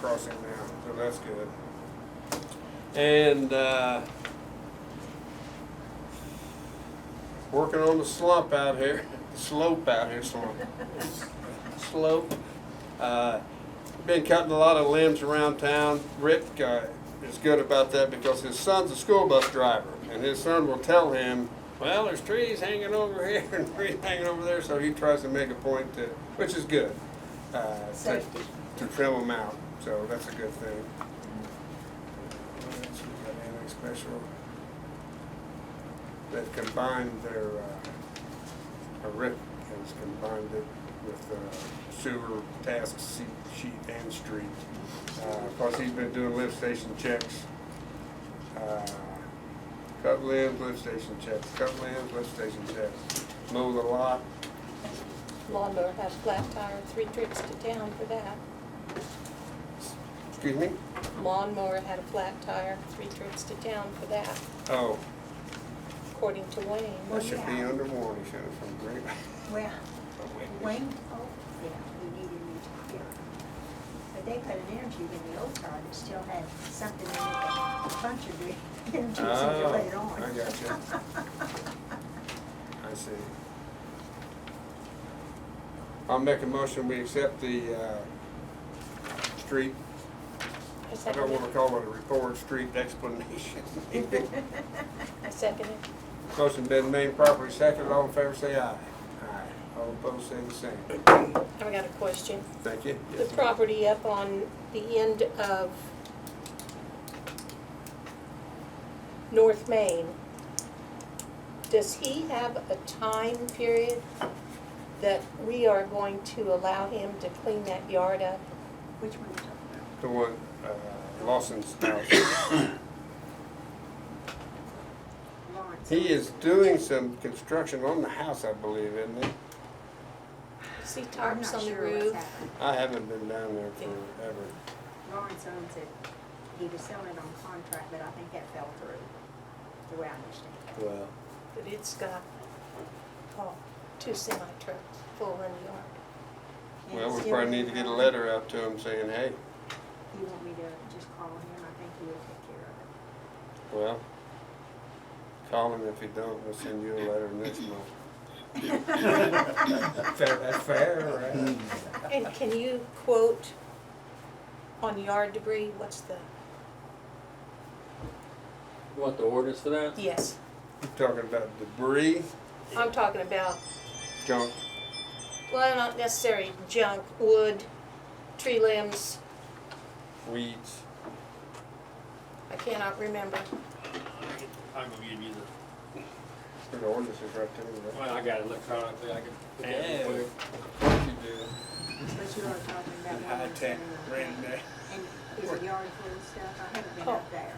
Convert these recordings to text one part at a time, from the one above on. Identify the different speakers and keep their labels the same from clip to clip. Speaker 1: crossing now, so that's good.
Speaker 2: And uh, working on the slump out here, slope out here, slump, slope. Uh, been cutting a lot of limbs around town. Rick uh, is good about that because his son's a school bus driver, and his son will tell him, "Well, there's trees hanging over here and trees hanging over there," so he tries to make a point to, which is good, uh, to-
Speaker 3: Safety.
Speaker 2: to
Speaker 1: to trim them out, so that's a good thing. What else we got? Anything special? They've combined their, uh, uh, Rick has combined it with uh, sewer task se- sheet and street. Plus, he's been doing lift station checks. Uh, Cut limbs, lift station checks, cut limbs, lift station checks. Mow the lot,
Speaker 3: Lawnmower has flat tire, three trips to town for that.
Speaker 2: excuse me?
Speaker 3: Lawnmower had a flat tire, three trips to town for that,
Speaker 2: Oh,
Speaker 3: according to Wayne.
Speaker 2: that should be under warning, should have from Green.
Speaker 4: Well, Wayne, oh, yeah, we needed new tire. But they put an energy in the old car that still had something in it that punctured the engine, so
Speaker 2: Oh,
Speaker 4: you later on.
Speaker 2: I gotcha. I see. I'll make a motion, we accept the, uh, street,
Speaker 3: I
Speaker 2: I don't
Speaker 3: second
Speaker 2: wanna
Speaker 3: it.
Speaker 2: call it a report, street explanation.
Speaker 3: I second it.
Speaker 2: Motion been made properly seconded, all in favor say aye. Aye. All opposed say the same.
Speaker 3: I've got a question.
Speaker 2: Thank you.
Speaker 3: The
Speaker 2: Yes, ma'am.
Speaker 3: property up on the end of North Main, does he have a time period that we are going to allow him to clean that yard up?
Speaker 4: Which one are you talking
Speaker 2: The one, uh, Lawson's house.
Speaker 4: about? Lawrence.
Speaker 2: He is doing some construction on the house, I believe, isn't he?
Speaker 3: See
Speaker 4: I'm
Speaker 3: tarps
Speaker 4: not
Speaker 3: on the
Speaker 4: sure what's
Speaker 3: roof?
Speaker 4: happened.
Speaker 2: I haven't been down there forever.
Speaker 4: Lawrence owns it. He was selling it on contract, but I think that fell through, the way I understand it.
Speaker 2: Well.
Speaker 3: But it's got, oh, two semi trucks full in the yard.
Speaker 4: And
Speaker 2: Well, we
Speaker 4: still-
Speaker 2: probably need to get a letter out to him saying, hey,
Speaker 4: You want me to just call him? I think he will take care of
Speaker 2: well,
Speaker 4: it.
Speaker 2: call him if you don't, we'll send you a letter next month. Fair, that's fair, right?
Speaker 3: And can you quote on yard debris, what's the,
Speaker 5: You want the ordinance for that?
Speaker 3: yes,
Speaker 2: You talking about debris,
Speaker 3: I'm talking about
Speaker 2: junk,
Speaker 3: Well, not necessarily junk, wood, tree limbs,
Speaker 2: weeds,
Speaker 3: I cannot remember.
Speaker 5: I'm gonna give you the,
Speaker 2: the ordinance is right there,
Speaker 5: well, I got it electronically, I can.
Speaker 2: Yeah. right? You do.
Speaker 4: But you are talking about. Lawrence and, uh, And is it yard full of stuff? I haven't been up there.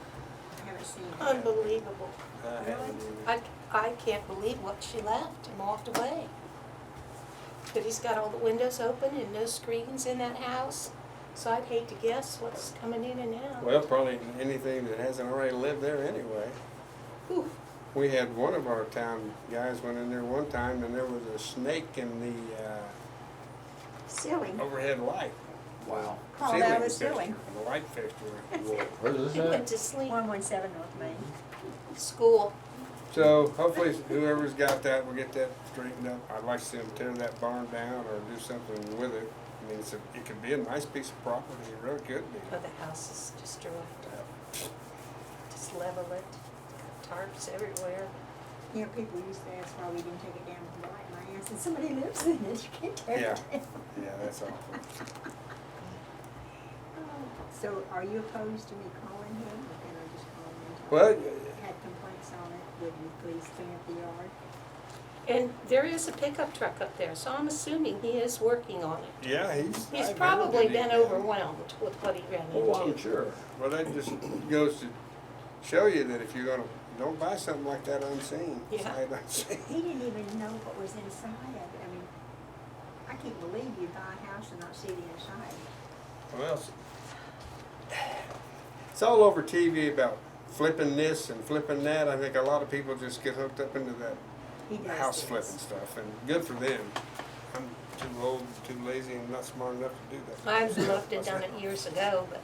Speaker 4: I haven't seen
Speaker 3: Oh.
Speaker 4: it.
Speaker 3: Unbelievable.
Speaker 2: I haven't either.
Speaker 3: I, I can't believe what she left and walked away. But he's got all the windows open and no screens in that house, so I'd hate to guess what's coming in and out.
Speaker 2: Well, probably anything that hasn't already lived there anyway.
Speaker 3: Oof.
Speaker 2: We had one of our town guys went in there one time and there was a snake in the, uh,
Speaker 4: Silly.
Speaker 2: overhead light. Wow.
Speaker 4: Oh, that was silly.
Speaker 2: The light fixture.
Speaker 5: Where's
Speaker 3: He went to sleep,
Speaker 4: One one seven North Main.
Speaker 3: school,
Speaker 2: So hopefully whoever's got that will get that straightened up. I'd like to see them tear that barn down or do something with it. I mean, it's a, it could be a nice piece of property, it really could be.
Speaker 3: but the house is destroyed. Just level it, tarps everywhere.
Speaker 4: You know, people used to ask why we didn't take it down with the light. And I answered, somebody lives in it. You can't tear it
Speaker 2: Yeah.
Speaker 4: down.
Speaker 2: Yeah, that's awful.
Speaker 4: So are you opposed to me calling him? Or can I just call him? and tell
Speaker 2: Well,
Speaker 4: him I Had complaints on it. Would you please clean up the yard?
Speaker 3: And there is a pickup truck up there, so I'm assuming he is working on it.
Speaker 2: yeah, he's. I
Speaker 3: He's
Speaker 2: bet
Speaker 3: probably
Speaker 2: that he-
Speaker 3: been overwhelmed with what he ran
Speaker 2: Oh, I'm
Speaker 3: into.
Speaker 2: sure. Well, that just goes to show you that if you're gonna, don't buy something like that unseen.
Speaker 3: Yeah.
Speaker 2: Sight unseen.
Speaker 4: He didn't even know what was inside of it. I mean, I can't believe you buy a house and not see the inside.
Speaker 2: Well, it's, it's all over TV about flipping this and flipping that. I think a lot of people just get hooked up into that
Speaker 4: He does
Speaker 2: house
Speaker 4: this.
Speaker 2: flipping stuff, and good for them. I'm too old, too lazy, and not smart enough to do that.
Speaker 3: I looked and done it years ago, but